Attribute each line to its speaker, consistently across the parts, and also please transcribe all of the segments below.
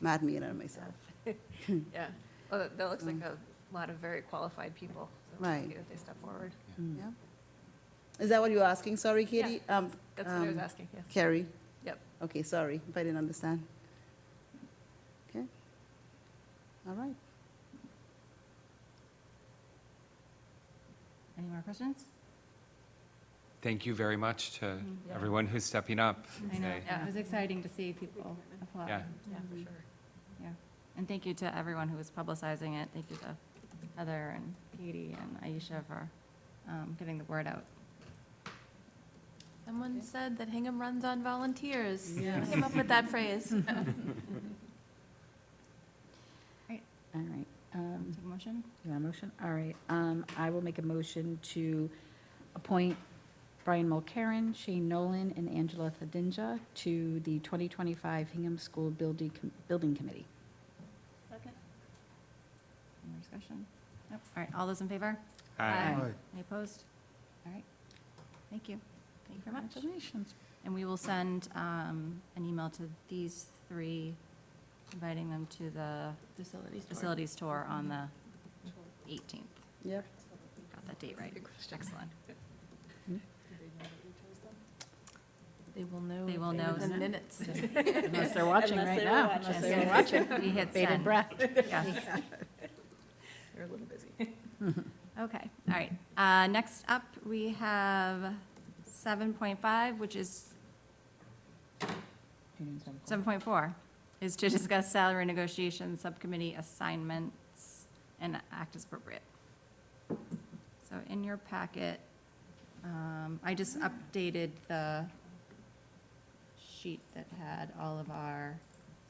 Speaker 1: not me and myself. Hmm.
Speaker 2: Yeah, well, that- that looks like a lot of very qualified people. so it's
Speaker 1: Um, Right.
Speaker 2: lucky That they step forward.
Speaker 1: Yeah. Is that what you're asking? Sorry, Katie? Um,
Speaker 2: That's what I was
Speaker 1: um,
Speaker 2: asking, yes.
Speaker 1: Carrie?
Speaker 2: Yep.
Speaker 1: Okay, sorry if I didn't understand. Okay. All right.
Speaker 3: Any more questions?
Speaker 4: Thank you very much to
Speaker 5: Mm,
Speaker 4: everyone who's stepping up
Speaker 3: I know,
Speaker 4: today.
Speaker 3: it was exciting to see people apply.
Speaker 4: Yeah.
Speaker 2: Yeah, for sure.
Speaker 3: Yeah. And thank you to everyone who was publicizing it. Thank you to Heather and Katie and Aisha for um, getting the word out.
Speaker 6: Someone said that Hingham runs on volunteers.
Speaker 1: Yeah. Hmm.
Speaker 6: I came up with that phrase.
Speaker 5: All right, um,
Speaker 3: Take a motion?
Speaker 5: you want a motion? All right, um, I will make a motion to appoint Brian Mulcaren, Shane Nolan, and Angela Thadinja to the 2025 Hingham School Building, Com- Building Committee.
Speaker 3: Second. Any more discussion? Nope. All right, all those in favor?
Speaker 4: Hi.
Speaker 5: Aye.
Speaker 3: Any opposed? All right. Thank you. Thank you very much.
Speaker 5: Congratulations.
Speaker 3: And we will send um, an email to these three, inviting them to the
Speaker 6: Facilities.
Speaker 3: facilities tour on the 18th.
Speaker 1: Yep.
Speaker 3: Got that date right. Excellent.
Speaker 6: They will know.
Speaker 3: They will know.
Speaker 6: Within minutes.
Speaker 5: Unless they're watching right now. Unless they're watching.
Speaker 3: We hit
Speaker 5: Bated
Speaker 3: send.
Speaker 5: breath.
Speaker 3: Yes.
Speaker 2: They're a little busy.
Speaker 3: Okay, all right. Uh, Next up, we have 7.5, which is, 7.4, is to discuss salary negotiations, subcommittee assignments, and act as appropriate. So in your packet, um, I just updated the sheet that had all of our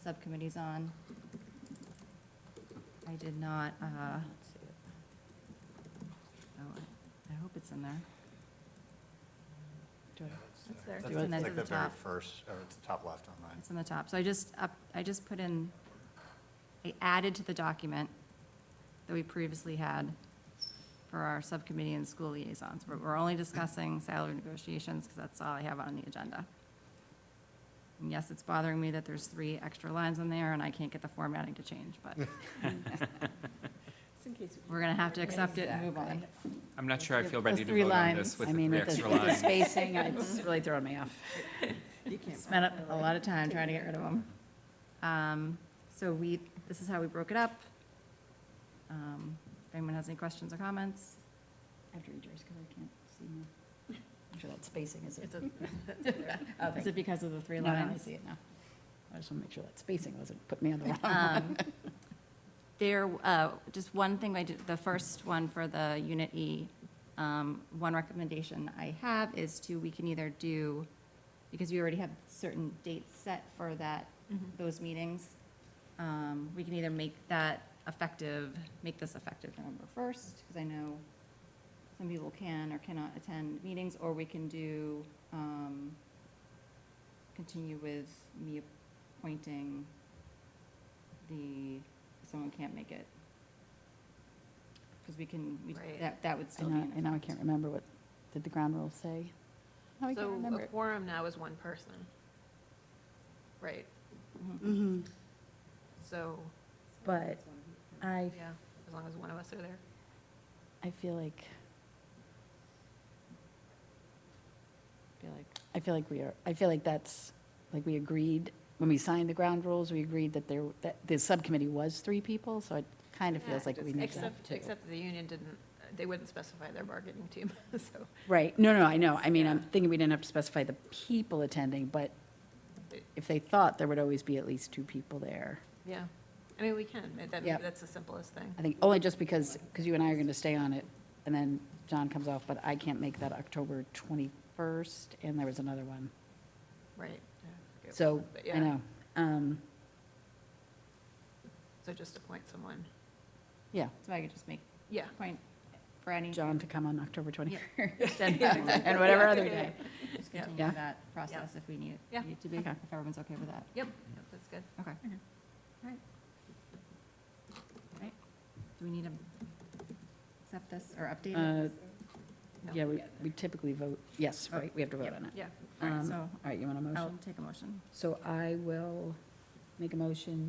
Speaker 3: subcommittees on. I did not, uh, Oh, I- I hope it's in there. Do I-
Speaker 2: That's there.
Speaker 3: That's and then to
Speaker 7: like the
Speaker 3: the
Speaker 7: very
Speaker 3: top.
Speaker 7: first, or it's top left on mine.
Speaker 3: It's in the top. So I just, up I just put in, I added to the document that we previously had for our subcommittee and school liaisons. We're, we're only discussing salary negotiations because that's all I have on the agenda. And yes, it's bothering me that there's three extra lines in there and I can't get the formatting to change, but we're going to have to accept it and move on.
Speaker 4: I'm not sure I feel ready to
Speaker 5: three
Speaker 4: vote on
Speaker 5: lines.
Speaker 4: this with
Speaker 5: I
Speaker 4: the
Speaker 5: mean,
Speaker 4: three
Speaker 5: with the
Speaker 4: extra
Speaker 5: with the
Speaker 4: lines.
Speaker 5: spacing, it's really throwing me off.
Speaker 3: Spent a- a lot of time trying to get rid of them. Um, So we, this is how we broke it up. Um, If anyone has any questions or comments?
Speaker 5: I have to read yours because I can't see. my- I'm sure that spacing is.
Speaker 6: It's
Speaker 5: it.
Speaker 6: a-
Speaker 5: Oh,
Speaker 3: Is
Speaker 5: thank
Speaker 3: it because of the three
Speaker 5: you. No, no, I
Speaker 3: lines?
Speaker 5: see it now. I just want to make sure that spacing wasn't putting me on the wrong.
Speaker 3: Um, There, uh, just one thing I did, the first one for the Unit E, um, one recommendation I have is to, we can either do, because we already have certain dates set for that, those meetings, um, we can either make that effective, make this effective November 1st, because I know some people can or cannot attend meetings, or we can do, um, continue with me appointing the, someone can't make it. Because we can, we-
Speaker 2: Right.
Speaker 3: that, that would
Speaker 5: I
Speaker 3: still be.
Speaker 5: know,
Speaker 3: in
Speaker 5: and now I
Speaker 3: effect.
Speaker 5: can't remember what, did the ground rules say? Now I can't
Speaker 2: So
Speaker 5: remember.
Speaker 2: a
Speaker 5: it.
Speaker 2: quorum now is one person. Right,
Speaker 6: Mm-hmm.
Speaker 1: Mhm.
Speaker 2: so,
Speaker 5: But I,
Speaker 2: yeah, as long as one of us are there.
Speaker 5: I feel like,
Speaker 3: feel like.
Speaker 5: I feel like we are, I feel like that's, like we agreed, when we signed the ground rules, we agreed that there, that the subcommittee was three people, so it kind of feels like we need to have
Speaker 2: Except,
Speaker 5: two.
Speaker 2: except the union didn't, they wouldn't specify their bargaining team, so
Speaker 5: Right, no, no, I know, I mean, I'm
Speaker 2: Yeah.
Speaker 5: thinking we didn't have to specify the people attending, but
Speaker 2: It-
Speaker 5: if they thought there would always be at least two people there.
Speaker 2: Yeah, I mean, we can, that- that,
Speaker 5: Yep.
Speaker 2: that's the simplest thing.
Speaker 5: I think only just because, because you and I are going to stay on it, and then John comes off, but I can't make that October 21st, and there was another one.
Speaker 2: Right. yeah, I forget
Speaker 5: So,
Speaker 2: what- but
Speaker 5: I
Speaker 2: yeah,
Speaker 5: know. Um,
Speaker 2: So just appoint someone.
Speaker 5: Yeah,
Speaker 3: So I could just make
Speaker 2: Yeah,
Speaker 3: a point for any.
Speaker 5: John to come on October Uh, 21st,
Speaker 3: Yeah.
Speaker 5: and whatever other day.
Speaker 3: Just
Speaker 2: Yeah.
Speaker 3: continue
Speaker 5: Yeah.
Speaker 3: that process if we need it-
Speaker 2: Yeah.
Speaker 3: need it to be,
Speaker 5: Okay.
Speaker 3: if everyone's okay with that.
Speaker 2: yep, yep, that's good.
Speaker 3: Okay. All right. All right. Do we need to accept this or update
Speaker 5: Uh,
Speaker 3: it?
Speaker 2: No.
Speaker 5: Yeah, we we typically vote, yes,
Speaker 3: Oh,
Speaker 5: right, we have to vote on it.
Speaker 2: Yeah.
Speaker 3: All right,
Speaker 5: Um,
Speaker 3: so
Speaker 5: All right, you want a
Speaker 3: I'll
Speaker 5: motion?
Speaker 3: take a motion.
Speaker 5: So I will make a motion